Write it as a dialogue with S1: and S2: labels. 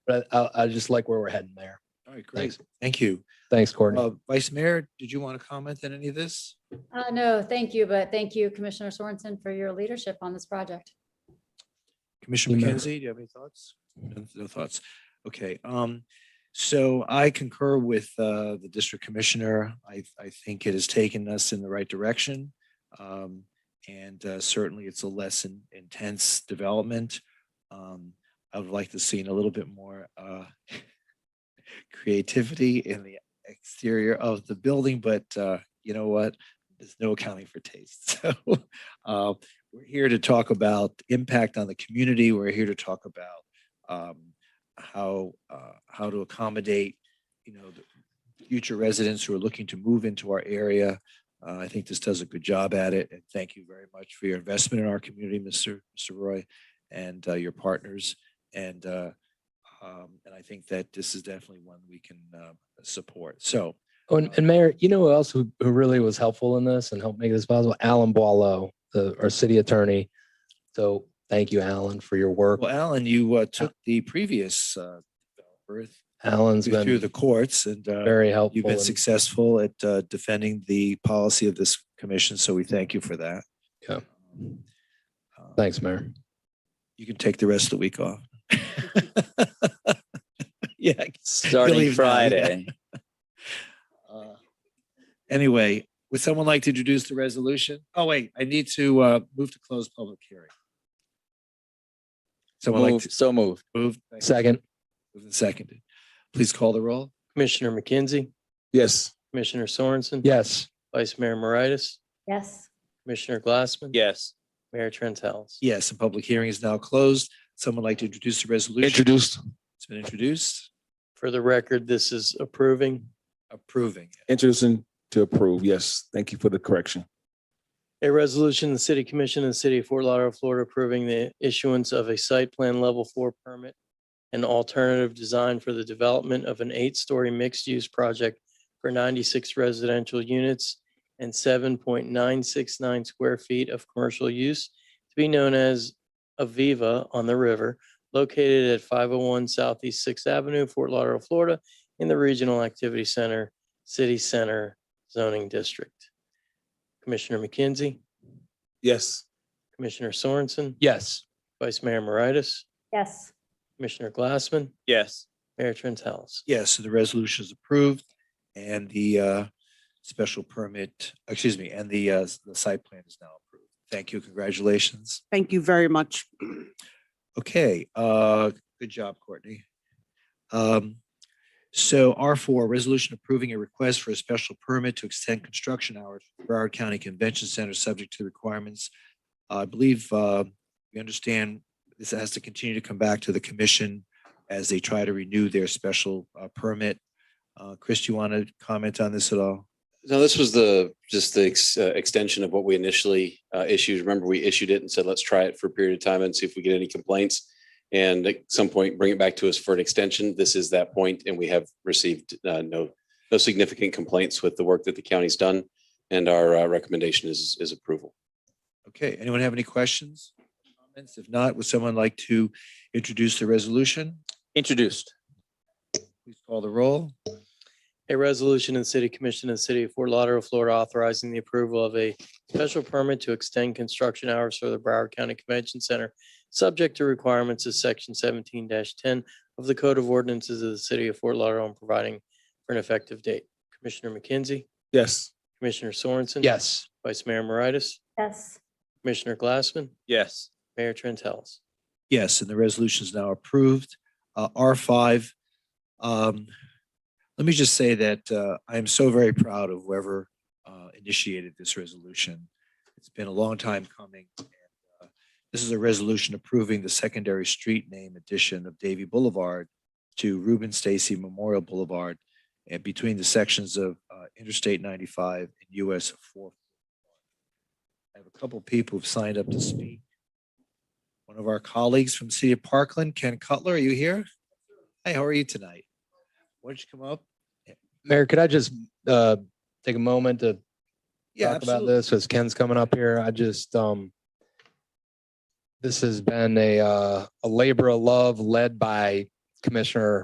S1: but I, I just like where we're heading there.
S2: All right, great.
S1: Thanks.
S2: Thank you.
S1: Thanks, Courtney.
S2: Uh, Vice Mayor, did you want to comment on any of this?
S3: Uh, no, thank you, but thank you Commissioner Sorensen for your leadership on this project.
S2: Commissioner
S1: No.
S2: McKenzie, do you have any thoughts? No- No thoughts. Okay, um, so I concur with, uh, the district commissioner. I, I think it has taken us in the right direction. Um, and, uh, certainly it's a less in- intense development. Um, I would like to see a little bit more, uh, creativity in the exterior of the building, but, uh, you know what? There's no accounting for taste. So, uh, we're here to talk about impact on the community. We're here to talk about um, how uh, how to accommodate, you know, the future residents who are looking to move into our area. Uh, I think this does a good job at it, and thank you very much for your investment in our community, Mr. Mr. Roy, and uh, your partners. And uh, um, and I think that this is definitely one we can uh, support. So
S1: Oh, and, and Mayor, you know who else who, who really was helpful in this and helped make this possible? Alan Boileau, the, our city attorney. So thank you, Alan, for your work.
S2: Well, Alan, you uh, took the previous uh, developer
S1: Alan's
S2: through
S1: been
S2: the courts and uh,
S1: very helpful.
S2: You've been
S1: and-
S2: successful at uh, defending the policy of this commission, so we thank you for that.
S1: Yeah.
S2: Uh,
S1: Thanks, Mayor.
S2: You can take the rest of the week off. Yeah. I guess you'll
S4: Starting
S2: leave now, yeah.
S4: Friday.
S2: Uh, Anyway, would someone like to introduce the resolution? Oh, wait, I need to uh, move to close public hearing. Someone like
S4: Move,
S2: to
S4: so moved.
S2: move? Thank you.
S1: Second,
S2: Moved and Seconded. Please call the roll.
S5: Commissioner McKenzie,
S6: Yes.
S5: Commissioner Sorensen.
S1: yes.
S5: Vice Mayor Moritas,
S3: Yes,
S5: Commissioner Glassman.
S4: Yes.
S5: Mayor Trent House.
S2: Yes, the public hearing is now closed. Someone like to introduce the resolution?
S6: Introduced.
S2: It's been introduced,
S5: For the record, this is approving.
S2: approving.
S6: Introducing to approve. Yes. Thank you for the correction.
S5: A resolution, of the City Commission of the City of Fort Lauderdale, Florida, approving the issuance of a site plan level four permit and alternative design for the development of an eight-story mixed-use project for ninety-six residential units and seven point nine six nine square feet of commercial use to be known as Aviva on the River, located at five oh one Southeast Sixth Avenue, Fort Lauderdale, Florida, in the Regional Activity Center, City Center zoning district. Commissioner McKenzie,
S6: Yes.
S5: Commissioner Sorensen,
S1: Yes.
S5: Vice Mayor Moritas,
S3: yes,
S5: Commissioner Glassman,
S4: Yes.
S5: Mayor Trent House.
S2: Yes, so the resolution is approved and the uh, special permit, excuse me, and the, uh, the site plan is now approved. Thank you, congratulations.
S7: Thank you very much.
S2: Okay, uh, good job, Courtney. Um, So R four, resolution approving a request for a special permit to extend construction hours for Broward County Convention Center, subject to the requirements. I believe uh, we understand this has to continue to come back to the commission as they try to renew their special uh, permit. Uh, Chris, do you want to comment on this at all?
S8: No, this was the, just the ex- uh, extension of what we initially uh, issued. Remember, we issued it and said, let's try it for a period of time and see if we get any complaints. And at some point, bring it back to us for an extension. This is that point, and we have received uh, no, no significant complaints with the work that the county's done. And our uh, recommendation is, is approval.
S2: Okay, anyone have any questions? Comments? If not, would someone like to introduce the resolution?
S4: Introduced.
S2: Please call the roll.
S5: A resolution in the City Commission of the City of Fort Lauderdale, Florida, authorizing the approval of a special permit to extend construction hours for the Broward County Convention Center, subject to requirements of section seventeen ten of the Code of Ordinances of the City of Fort Lauderdale and providing for an effective date. Commissioner McKenzie,
S6: Yes.
S5: Commissioner Sorensen.
S1: Yes.
S5: Vice Mayor Moritas,
S3: yes,
S5: Commissioner Glassman,
S4: Yes.
S5: Mayor Trent House.
S2: Yes, and the resolution is now approved. Uh, R five. Um, let me just say that, uh, I am so very proud of whoever, uh, initiated this resolution. It's been a long time coming. and, uh, This is a resolution approving the secondary street name addition of Davy Boulevard to Reuben Stacy Memorial Boulevard and between the sections of, uh, Interstate ninety-five and US four. I have a couple people who've signed up to speak one of our colleagues from City of Parkland, Ken Cutler. Are you here? Hey, how are you tonight? Why don't you come up?
S1: Mayor, could I just uh, take a moment to
S2: Yeah,
S1: talk about
S2: absolutely.
S1: this as Ken's coming up here. I just, um, this has been a, uh, a labor of love led by Commissioner